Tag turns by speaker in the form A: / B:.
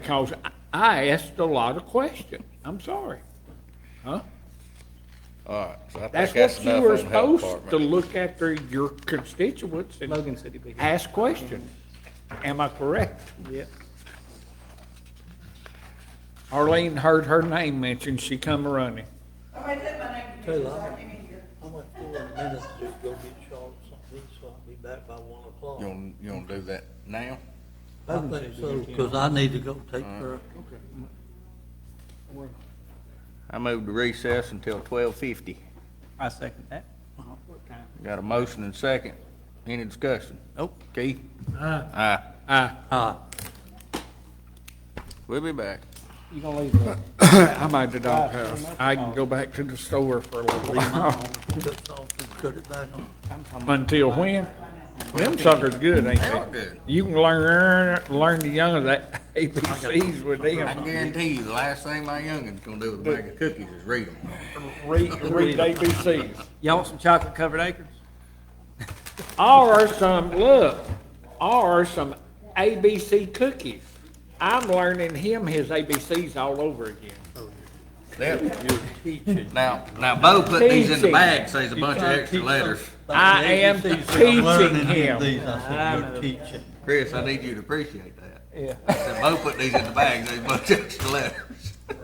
A: Because I- I asked a lot of questions. I'm sorry. Huh?
B: All right, so I think
A: That's
B: that's
A: what you
B: enough
A: were
B: on the health
A: supposed to
B: department.
A: look after your constituents and
C: Logan said he'd be here.
A: ask questions. Am I correct?
C: Yeah.
A: Arlene heard her name mentioned. She come running.
D: Oh, I said my name.
E: Tell you,
D: I
E: I'm-
D: came in here.
E: I'm gonna go in a minute to go get Charlotte something, so I'll be back by one
B: You
E: o'clock.
B: gonna, you gonna do that now?
E: I think so, because I need to go take her.
B: I move to recess until twelve fifty.
C: I second that.
B: Got a motion and second. Any discussion? Nope. Keith? Aye.
A: I,
E: Ah,
B: We'll be back.
C: You gonna leave the
A: I'm at the doghouse. I can go back to the store for a little while.
E: took off and cut it back on.
A: Until when? Them suckers good, ain't
B: They are
A: they?
B: good.
A: You can learn, learn the young of that ABCs with
B: I
A: them.
B: guarantee you, the last thing my youngin's gonna do with a bag of cookies is read them.
A: Read, read ABCs.
C: Y'all want some chocolate covered acres?
A: Or some, look, or some ABC cookies. I'm learning him his ABCs all over again.
B: Now, now Bo put these in the
A: Teaching.
B: bag, says a
E: You
B: bunch of
E: trying to
B: extra
E: teach
B: letters.
E: them-
A: I am
E: These things I'm learning
A: teaching
E: in
A: him.
E: These, I said, you're teaching.
B: Chris, I need you to appreciate that. Yeah. I said, Bo put these in the bag, there's a bunch of extra letters.